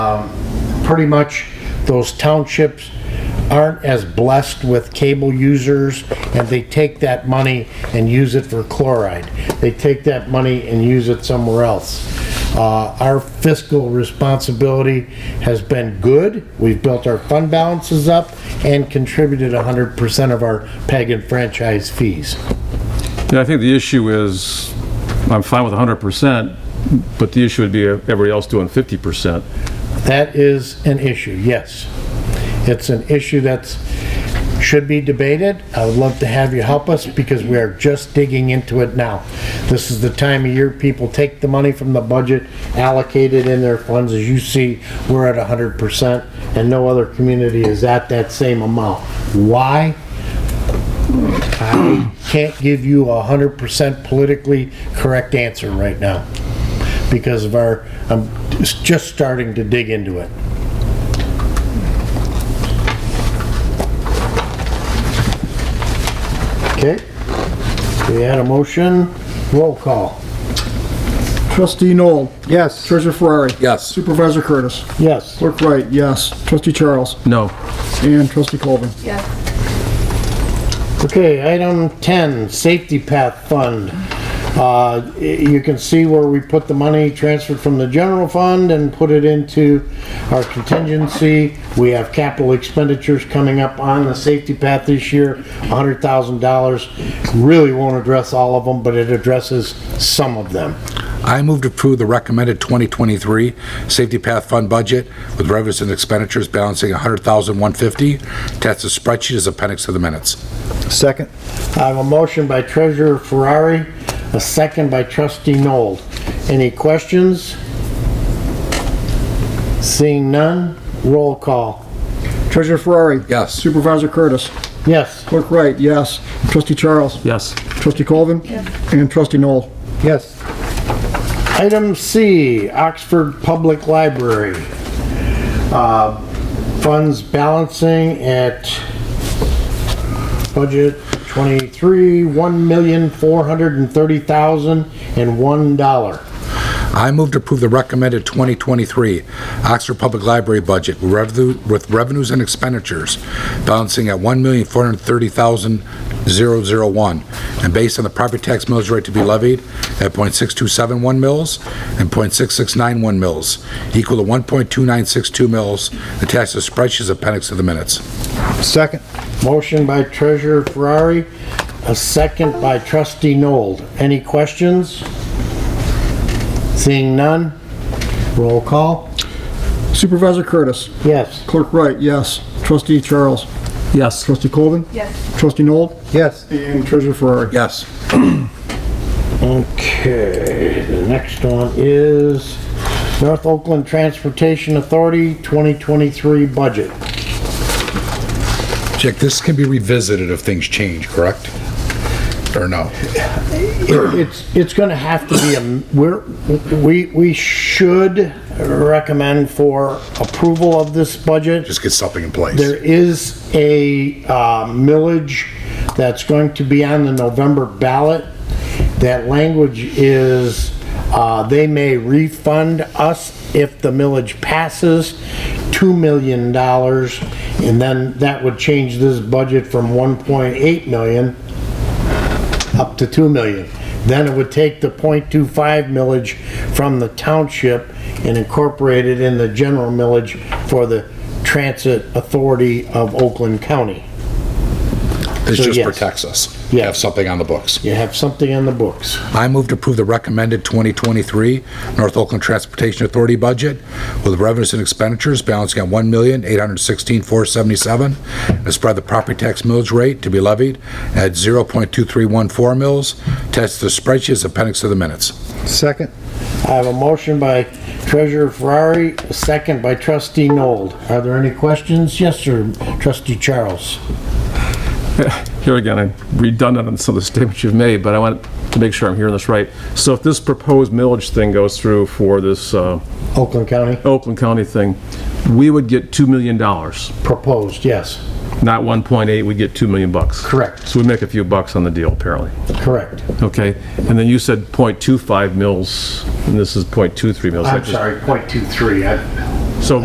Um, pretty much those townships aren't as blessed with cable users and they take that money and use it for chloride. They take that money and use it somewhere else. Uh, our fiscal responsibility has been good. We've built our fund balances up and contributed 100% of our PEG and franchise fees. Yeah, I think the issue is, I'm fine with 100%, but the issue would be everybody else doing 50%. That is an issue, yes. It's an issue that's, should be debated. I would love to have you help us because we are just digging into it now. This is the time of year people take the money from the budget, allocate it in their funds. As you see, we're at 100% and no other community is at that same amount. Why? I can't give you a 100% politically correct answer right now because of our, I'm just starting to dig into it. Okay, we had a motion, roll call. Trustee Noel. Yes. Treasurer Ferrari. Yes. Supervisor Curtis. Yes, Clerk Wright, yes. Trustee Charles. No. And Trustee Colvin. Yes. okay, item 10, Safety Path Fund. Uh, y- You can see where we put the money transferred from the general fund and put it into our contingency. We have capital expenditures coming up on the safety path this year, $100,000. Really won't address all of them, but it addresses some of them. I move to approve the recommended 2023 Safety Path Fund budget with revenues and expenditures balancing $100,150. Attached to spreadsheet as appendix to the minutes. Second. I have a motion by Treasurer Ferrari, a second by Trustee Noel. Any questions? Seeing none, roll call. Treasurer Ferrari. Yes. Supervisor Curtis. Yes. Clerk Wright, yes. Trustee Charles. Yes. Trustee Colvin. Yes. And Trustee Noel. Yes. Item C, Oxford Public Library. Uh, Funds balancing at budget 23, $1,430,001. I move to approve the recommended 2023 Oxford Public Library budget with revenue- with revenues and expenditures balancing at $1,430,001 and based on the property tax millage rate to be levied at .6271 mils and .6691 mils, equal to 1.2962 mils, attached to spreadsheets appendix to the minutes. Second. Motion by Treasurer Ferrari, a second by Trustee Nold. Any questions? Seeing none, roll call. Supervisor Curtis. Yes. Clerk Wright, yes. Trustee Charles. Yes. Trustee Colvin. Yes. Trustee Noel. Yes. And Treasurer Ferrari. Yes. Okay, the next one is North Oakland Transportation Authority 2023 budget. Jack, this can be revisited if things change, correct? Or no? It- It's, it's gonna have to be, a we're, we, we should recommend for approval of this budget. Just get something in place. There is a uh, millage that's going to be on the November ballot. That language is, uh, they may refund us if the millage passes $2 million. And then that would change this budget from 1.8 million up to 2 million. Then it would take the .25 millage from the township and incorporate it in the general millage for the Transit Authority of Oakland County. This So, just yes. protects us. Yeah. Have something on the books. You have something in the books. I move to approve the recommended 2023 North Oakland Transportation Authority budget with revenues and expenditures balancing at $1,816,477 and spread the property tax millage rate to be levied at 0.2314 mils. Attached to the spreadsheet is appendix to the minutes. Second. I have a motion by Treasurer Ferrari, a second by Trustee Nold. Are there any questions? Yes, sir, Trustee Charles. Here again, I'm redundant on some of the statements you've made, but I want to make sure I'm hearing this right. So if this proposed millage thing goes through for this uh, Oakland County, Oakland County thing, we would get $2 million, not proposed, yes, 1.8, we'd get 2 million bucks. Correct. So we make a few bucks on the deal, apparently. correct. Okay, and then you said .25 mils, and this is .23 mils. I'm sorry, .23. I